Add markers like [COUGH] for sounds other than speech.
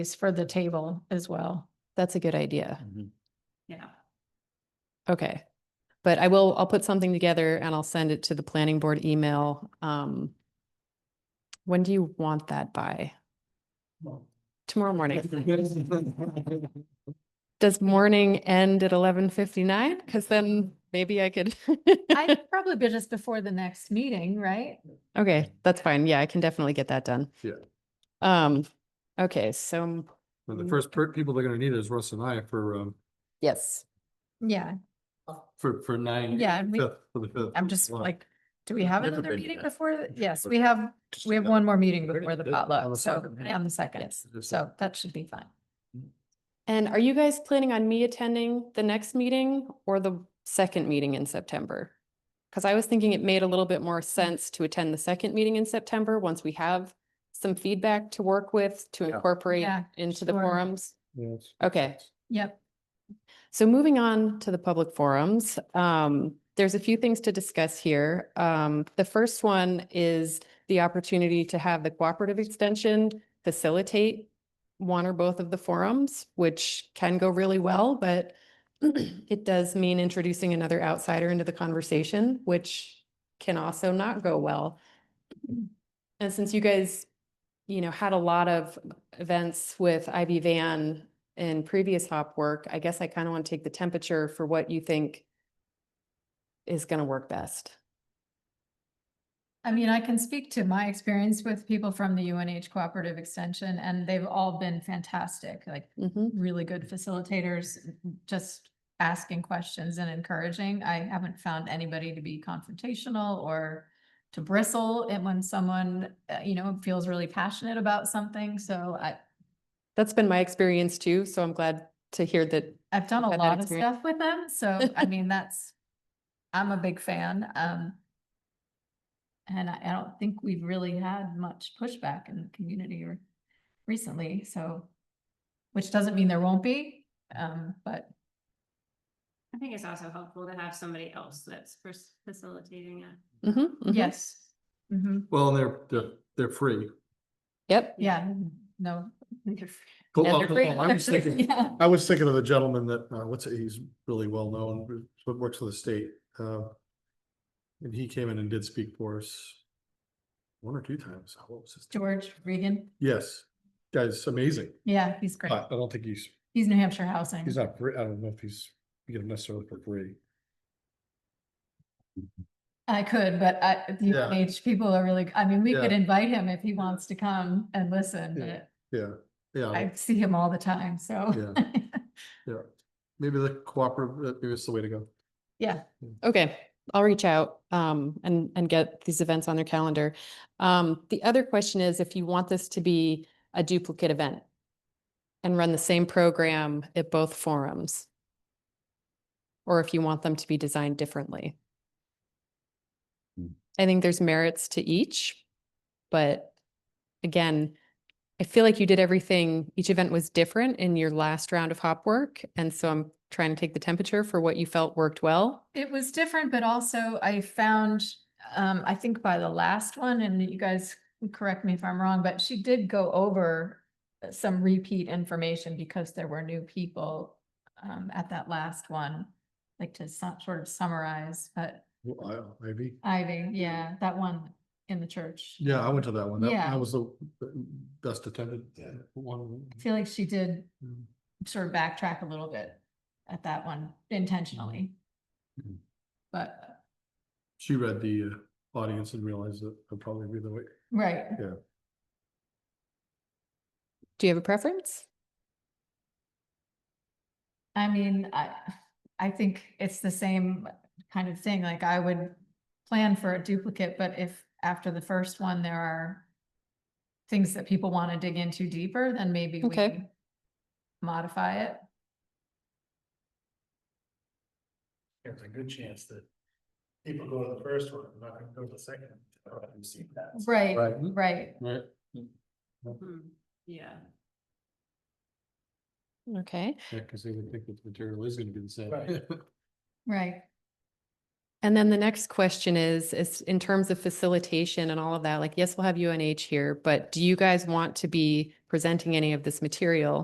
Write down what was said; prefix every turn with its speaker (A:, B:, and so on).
A: is for the table as well.
B: That's a good idea.
A: Yeah.
B: Okay. But I will, I'll put something together and I'll send it to the planning board email. Um, when do you want that by? Tomorrow morning. Does morning end at eleven fifty-nine? Cause then maybe I could. [LAUGHS]
A: I'd probably be just before the next meeting, right?
B: Okay, that's fine. Yeah, I can definitely get that done.
C: Yeah.
B: Um, okay, so,
C: Well, the first per- people they're gonna need is Russ and I for, um,
B: yes.
A: Yeah,
C: for, for nine.
A: Yeah, and we-
C: fifth- for the fifth
A: I'm just
C: one.
A: like, do we have
C: Never
A: another
C: been
A: meeting
C: yet.
A: before? th- Yes, we have, we have one more meeting before the
C: On the
A: potluck, so
C: second, yeah.
A: on the second,
C: Yes.
A: so that should be fine.
B: And are you guys planning on me attending the next meeting or the second meeting in September? Because I was thinking it made a little bit more sense to attend the second meeting in September, once we have some feedback to work with, to
C: Yeah.
B: incorporate
A: Yeah,
B: into the
A: sure.
B: forums.
C: Yes.
B: Okay.
A: Yep.
B: So moving on to the public forums, um, there's a few things to discuss here. Um, the first one is the opportunity to have the cooperative extension facilitate one or both of the forums, which can go really well, but [CLEARS THROAT] it does mean introducing another outsider into the conversation, which can also not go well. And since you guys, you know, had a lot of events with Ivy Van in previous hop work, I guess I kind of want to take the temperature for what you think is going to work best.
A: I mean, I can speak to my experience with people from the UNH Cooperative Extension, and they've all been fantastic, like
B: Mhm.
A: really good facilitators, just asking questions and encouraging. I haven't found anybody to be confrontational or to bristle and when someone, uh, you know, feels really passionate about something. So I,
B: That's been my experience too, so I'm glad to hear that.
A: I've done a
B: I've had that
A: lot of
B: experience.
A: stuff with them. So
B: [LAUGHS]
A: I mean, that's, I'm a big fan. Um, and I, I don't think we've really had much pushback in the community or recently, so, which doesn't mean there won't be, um, but
D: I think it's also helpful to have somebody else that's fac- facilitating it.
B: Mhm, mhm.
A: yes. hmm
C: Well, and they're, they're, they're free.
B: Yep.
A: Yeah, no.
C: Cool,
B: Yeah,
C: well,
B: they're
C: no,
B: free.
A: [LAUGHS]
C: no, I was thinking,
A: Yeah.
C: I was thinking of the gentleman that, uh, what's, he's really well known, but works for the state, uh. And he came in and did speak for us. One or two times, what was his? name?
A: George Regan,
C: Yes, guy's amazing,
A: yeah, he's great.
C: but I don't think he's,
A: He's New Hampshire Housing.
C: he's not, free. I don't know if he's, you get him necessarily for free.
A: I could, but I, the
C: Yeah.
A: UNH people are really, I mean, we could
C: Yeah.
A: invite him if he wants to come and listen,
C: Yeah.
A: but
C: Yeah, yeah. I-
A: I see him all the time, so. [LAUGHS]
C: Yeah, maybe the cooperative, uh, maybe it's the way to go.
A: Yeah,
B: Okay, I'll reach out um and and get these events on their calendar. Um, the other question is if you want this to be a duplicate event and run the same program at both forums. Or if you want them to be designed differently. I think there's merits to each, but again, I feel like you did everything, each event was different in your last round of hop work. And so I'm trying to take the temperature for what you felt worked well
A: it was different, but also I found, um, I think by the last one, and you guys correct me if I'm wrong, but she did go over uh, some repeat information because there were new people, um, at that last one, like to some, sort of summarize, but
C: Well, I- Maybe.
A: Ivy, yeah, that one in the church.
C: Yeah, I went to that one. That,
A: Yeah.
C: that was the the best attended one.
A: I feel like she did
C: Mm.
A: sort of backtrack a little bit at that one intentionally.
C: Mhm.
A: But,
C: She read the uh, audience and realized that I'd probably be the way.
A: right,
B: Do you have a preference?
A: I mean, I, I think it's the same kind of thing, like I would plan for a duplicate, but if after the first one, there are things that people want to dig into deeper, then maybe
B: Okay.
A: we modify it.
E: there's a good chance that people go to the first one, not gonna go to the second. or I've seen that.
A: Right,
C: Right.
A: right.
C: Right.
D: Hmm, Yeah.
B: Okay.
C: [LAUGHS] Yeah, because they would think that the material is gonna be the same.
E: Right.
A: Right.
B: And then the next question is, is in terms of facilitation and all of that, like, yes, we'll have UNH here, but do you guys want to be presenting any of this material?